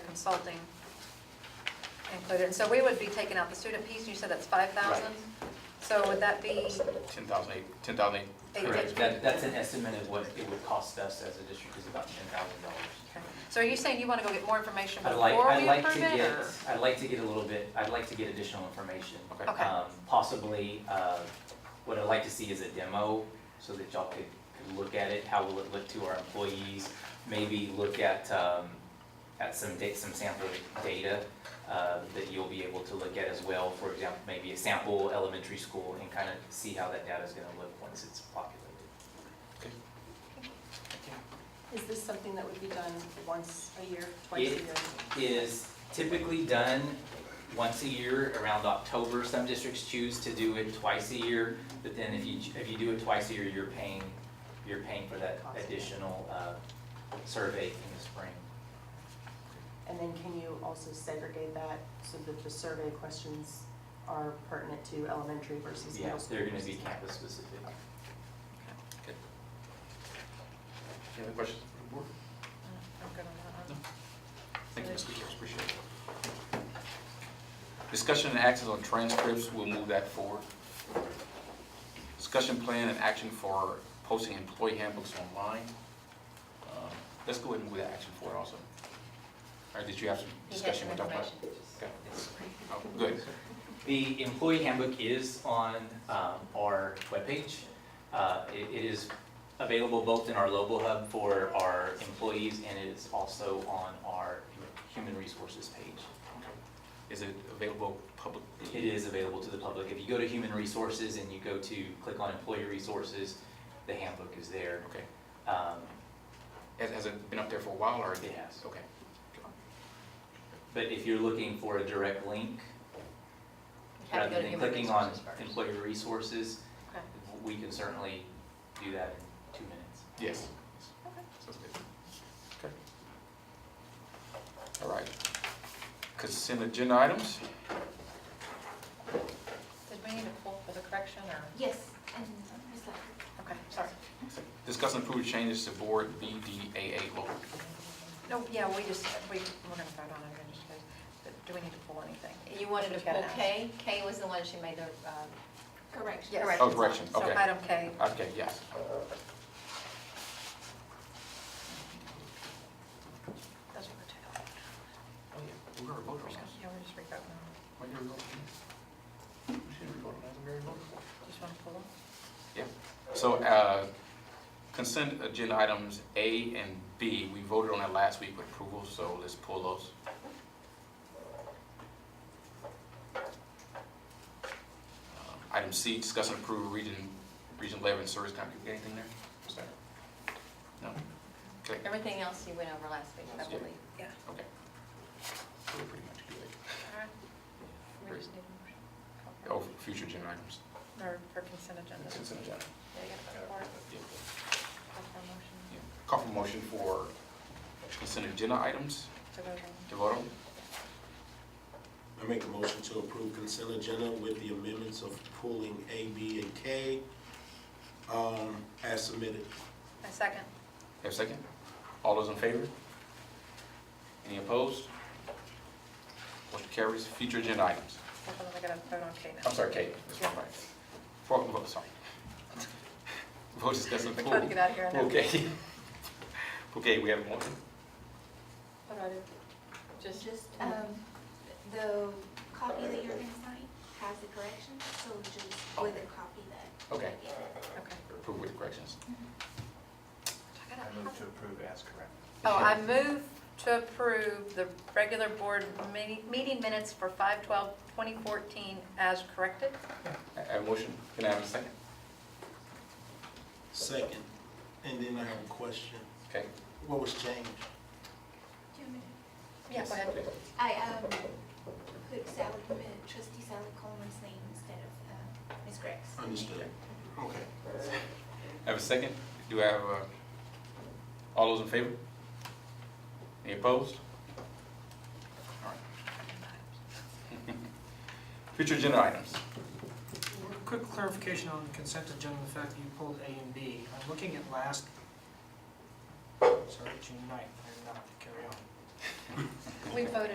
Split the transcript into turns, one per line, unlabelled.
consulting included. And so we would be taking out the student piece, you said that's 5,000?
Right.
So would that be,
10,008, 10,008.
Eight
Correct.
fifty.
That, that's an estimate of what it would cost us as a district is about ten thousand dollars.
okay. so are you saying you want to go get more information
I'd like,
before
I'd
we
like to
approve it?
get,
or-
I'd like to get a little bit, I'd like to get additional information.
Okay. Okay.
Um, Possibly, uh, what I'd like to see is a demo, so that y'all could, could look at it, how will it look to our employees? Maybe look at, um, at some da, some sample data, uh, that you'll be able to look at as well. For example, maybe a sample elementary school and kind of see how that data is gonna look once it's populated.
Is this something that would be done once a year, twice a
It-
year?
is typically done once a year around October. Some districts choose to do it twice a year, but then if you, if you do it twice a year, you're paying, you're paying for that additional uh, survey in the spring.
And then can you also segregate that so that the survey questions are pertinent to elementary versus middle
Yes,
school?
they're gonna be
versus-
campus specific.
Any other questions from the board?
I'm good on that one.
Thank you, Ms. Speakers, appreciate it. Discussion and actions on transcripts, we'll move that forward. Discussion plan and action for posting employee handbooks online. Um, Let's go ahead and move that action forward also. All right, did you have some discussion? with Dr. Platt? Okay. Oh, Good.
The employee handbook is on um, our webpage. Uh, it- It is available both in our local hub for our employees and it is also on our human resources page.
Is it available publicly?
It is available to the public. If you go to Human Resources and you go to, click on Employee Resources, the handbook is there.
Okay.
Um,
Has, has it been up there for a while or?
It has.
Okay.
But if you're looking for a direct link,
You'd have to go to
rather than
human
clicking on
resources first.
Employee Resources,
Okay.
we can certainly do that in two minutes.
Yes.
Okay.
Sounds good. Okay. All right. Consent agenda items?
Did we need to pull for the correction or,
Yes, and Ms. Lockhart.
okay, sorry.
Discuss and approve changes to board BDAA local.
No, yeah, we just, we, we're going to vote on it in just a second. But Do we need to pull anything?
You wanted to
We've got
pull
an action.
K? K was the one she made the um, correction.
Yes.
Oh,
corrections on.
correction,
So
okay.
item K,
Okay, yes.
that's what we're taking.
Oh, yeah, we're gonna vote on
Yeah, we're just revoting on it.
Why did we vote on this? We should have voted on this, we already voted.
Just want to pull them?
So, uh, consent agenda items A and B, we voted on that last week with approval, so let's pull those. Um, Uh, Item C, discuss and approve region, region eleven service contract, anything there? Is there? No? Okay,
Everything else you went over last week, I
Yeah.
believe.
Yeah.
okay. We're pretty much good.
All right. We
Great.
just need a
Oh,
motion.
future agenda items,
Or for consent agenda.
consent agenda.
Yeah, you gotta vote for it.
Yeah.
Call for a motion
Yeah. Call for motion for consent agenda items
to vote on.
to vote on?
I make a motion to approve consent agenda with the amendments of pulling A, B, and K um, as submitted.
I second.
Have a second? All those in favor? Any opposed? Motion carries. Future agenda items.
Hold on, I gotta vote on K now.
I'm sorry, Kate. That's my bad. Vote, vote, sorry. Vote discussing
We're
pool.
trying to get out of here. I know.
Okay. Okay, we have a motion.
What do I do? Just,
Just um, the copy that you're gonna sign has the correction, so just with a copy that.
Okay,
okay.
approve with corrections.
I gotta-
to approve as correct.
Oh, I move to approve the regular board mi- meeting minutes for 5/12/2014 as corrected.
I have a motion. Can I have a second?
Second, and then I have a question.
Okay.
What was changed?
Do you want me
Yeah, go ahead.
to- I um, put Sally, uh, trustee Sally Coleman's name instead of uh, Ms. Greg's.
Understood. Okay.
Have a second? Do I have a, all those in favor? Any opposed? All right. Future agenda items.
Quick clarification on the consent agenda, the fact that you pulled A and B. I'm looking at last, sorry, June 9th, I did not carry on.
We voted